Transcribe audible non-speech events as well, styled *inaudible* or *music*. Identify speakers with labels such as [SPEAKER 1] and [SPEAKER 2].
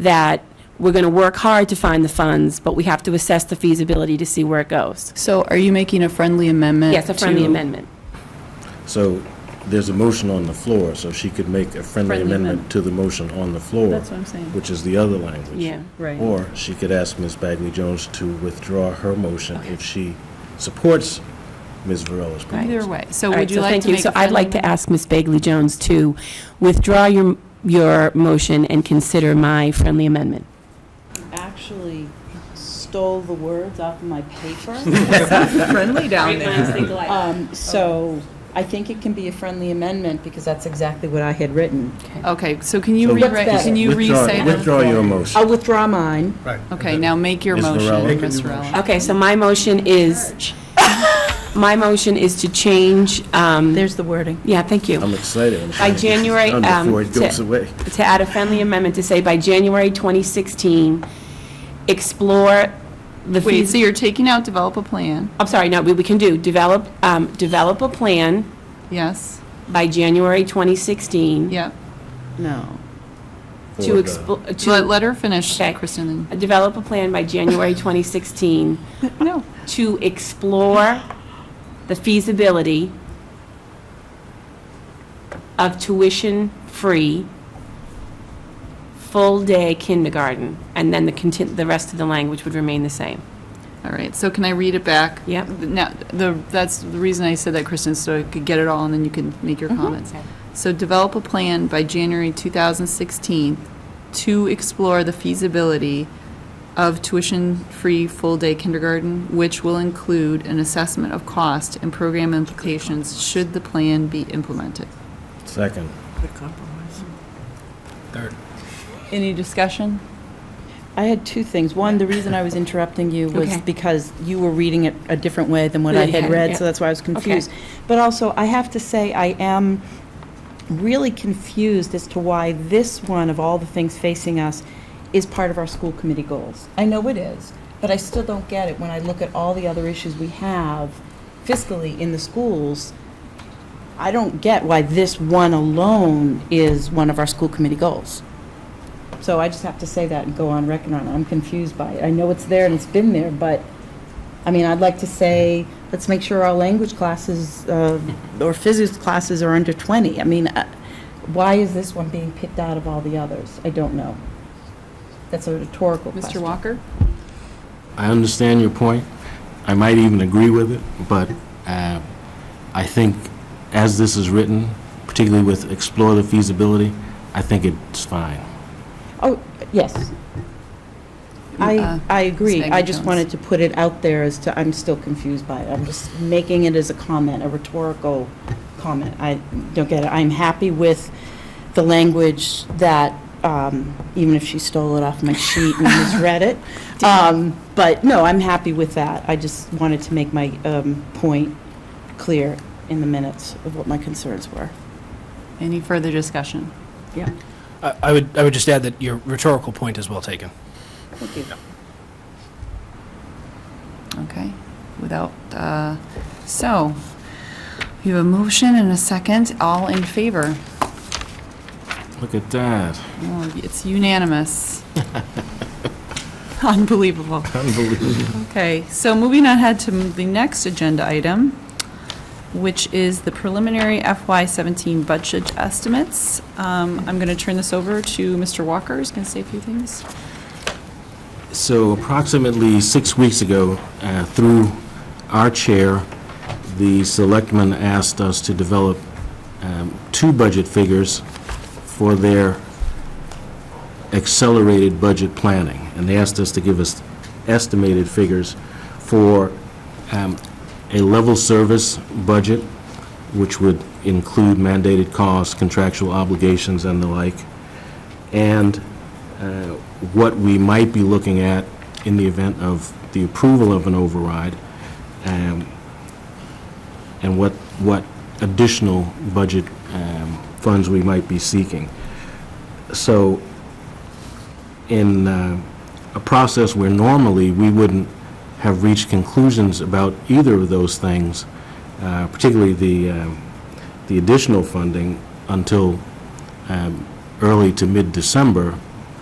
[SPEAKER 1] that we're going to work hard to find the funds, but we have to assess the feasibility to see where it goes.
[SPEAKER 2] So are you making a friendly amendment?
[SPEAKER 1] Yes, a friendly
[SPEAKER 2] to-
[SPEAKER 1] amendment.
[SPEAKER 3] So there's a motion on the floor, so she could make a friendly amendment
[SPEAKER 2] amendment.
[SPEAKER 3] to the motion on the floor.
[SPEAKER 2] That's what I'm saying.
[SPEAKER 3] Which is the other language.
[SPEAKER 1] Yeah.
[SPEAKER 2] Right.
[SPEAKER 3] Or she could ask Ms. Bagley Jones to withdraw her motion if she supports Ms. Varela's proposal.
[SPEAKER 2] Either way. So
[SPEAKER 1] All right,
[SPEAKER 2] would you
[SPEAKER 1] so
[SPEAKER 2] like
[SPEAKER 1] thank
[SPEAKER 2] to make a
[SPEAKER 1] So I'd like
[SPEAKER 2] friendly-
[SPEAKER 1] to ask Ms. Bagley Jones to withdraw your, your motion and consider my friendly amendment.
[SPEAKER 4] actually stole the words off of
[SPEAKER 5] *laughs*
[SPEAKER 4] my paper.
[SPEAKER 5] friendly down there.
[SPEAKER 4] Um, So I think it can be a friendly amendment because that's exactly what I had written.
[SPEAKER 2] Okay, so can you
[SPEAKER 3] So-
[SPEAKER 2] rewrite,
[SPEAKER 4] What's better?
[SPEAKER 2] can you
[SPEAKER 3] Withdraw-
[SPEAKER 2] re-say that?
[SPEAKER 3] Withdraw your motion.
[SPEAKER 4] I'll withdraw mine.
[SPEAKER 6] Right.
[SPEAKER 2] Okay, now make your
[SPEAKER 3] Ms. Varela.
[SPEAKER 2] motion,
[SPEAKER 3] Make a
[SPEAKER 2] Ms.
[SPEAKER 6] new motion.
[SPEAKER 2] Rowland.
[SPEAKER 1] Okay, so my motion is, my motion is to change, um,
[SPEAKER 4] There's the wording.
[SPEAKER 1] yeah, thank you.
[SPEAKER 3] I'm excited. I'm
[SPEAKER 1] By
[SPEAKER 3] trying to get this
[SPEAKER 1] January,
[SPEAKER 3] done
[SPEAKER 1] um,
[SPEAKER 3] Before it
[SPEAKER 1] to-
[SPEAKER 3] goes away.
[SPEAKER 1] to add a friendly amendment to say by January 2016, explore the
[SPEAKER 2] Wait, so
[SPEAKER 1] fees.
[SPEAKER 2] you're taking out develop a plan,
[SPEAKER 1] I'm sorry, no, we we can do, develop, um, develop a plan
[SPEAKER 2] yes,
[SPEAKER 1] by January 2016
[SPEAKER 2] yep.
[SPEAKER 4] No.
[SPEAKER 1] to
[SPEAKER 3] For the-
[SPEAKER 1] expl,
[SPEAKER 2] Let,
[SPEAKER 1] to
[SPEAKER 2] let her finish,
[SPEAKER 1] Okay. *laughs*
[SPEAKER 2] Kristen.
[SPEAKER 1] develop a plan by January 2016
[SPEAKER 2] No.
[SPEAKER 1] to explore the feasibility of tuition-free, full-day kindergarten, and then the contin, the rest of the language would remain the same.
[SPEAKER 2] All right, so can I read it back?
[SPEAKER 1] Yep.
[SPEAKER 2] Now, the, that's the reason I said that, Kristen, so I could get it all, and then you can make
[SPEAKER 1] Mm-hmm.
[SPEAKER 2] your comments. So develop a plan by January 2016 to explore the feasibility of tuition-free full-day kindergarten, which will include an assessment of cost and program implications should the plan be implemented.
[SPEAKER 3] Second.
[SPEAKER 6] Third.
[SPEAKER 2] Any discussion?
[SPEAKER 4] I had two things. One, the reason I was interrupting you was
[SPEAKER 1] Okay.
[SPEAKER 4] because you were reading it a different way than what I
[SPEAKER 1] Than you
[SPEAKER 4] had
[SPEAKER 1] had,
[SPEAKER 4] read,
[SPEAKER 1] yeah.
[SPEAKER 4] so that's why I was confused. But also, I have to say, I am really confused as to why this one, of all the things facing us, is part of our school committee goals. I know it is, but I still don't get it when I look at all the other issues we have fiscally in the schools. I don't get why this one alone is one of our school committee goals. So I just have to say that and go on record on it. I'm confused by it. I know it's there and it's been there, but, I mean, I'd like to say, let's make sure our language classes uh, or physics classes are under 20. I mean, uh, why is this one being picked out of all the others? I don't know. That's a rhetorical question.
[SPEAKER 2] Mr. Walker?
[SPEAKER 3] I understand your point. I might even agree with it, but uh, I think as this is written, particularly with explore the feasibility, I think it's fine.
[SPEAKER 4] Oh, yes. I,
[SPEAKER 2] Uh,
[SPEAKER 4] I agree.
[SPEAKER 2] Ms.
[SPEAKER 4] I just
[SPEAKER 2] Bagley-Jones.
[SPEAKER 4] wanted to put it out there as to, I'm still confused by it. I'm just making it as a comment, a rhetorical comment. I don't get it. I'm happy with the language that, um, even if she stole it off my sheet and
[SPEAKER 2] *laughs*
[SPEAKER 4] misread it. Um, But, no, I'm happy with that. I just wanted to make my um, point clear in the minutes of what my concerns were.
[SPEAKER 2] Any further discussion?
[SPEAKER 4] Yeah.
[SPEAKER 6] I I would, I would just add that your rhetorical point is well taken.
[SPEAKER 4] Thank you.
[SPEAKER 2] Okay, without, uh, so, we have a motion and a second, all in favor.
[SPEAKER 3] Look at that.
[SPEAKER 2] Oh, It's unanimous. Unbelievable.
[SPEAKER 3] Unbelievable.
[SPEAKER 2] Okay, so moving ahead to the next agenda item, which is the preliminary FY17 budget estimates. Um, I'm going to turn this over to Mr. Walker, who's going to say a few things.
[SPEAKER 3] So approximately six weeks ago, uh, through our chair, the selectmen asked us to develop um, two budget figures for their accelerated budget planning. And they asked us to give us estimated figures for um, a level service budget, which would include mandated costs, contractual obligations, and the like, and uh, what we might be looking at in the event of the approval of an override, um, and what, what additional budget um, funds we might be seeking. So in uh, a process where normally we wouldn't have reached conclusions about either of those things, uh, particularly the, um, the additional funding until um, early to mid-December,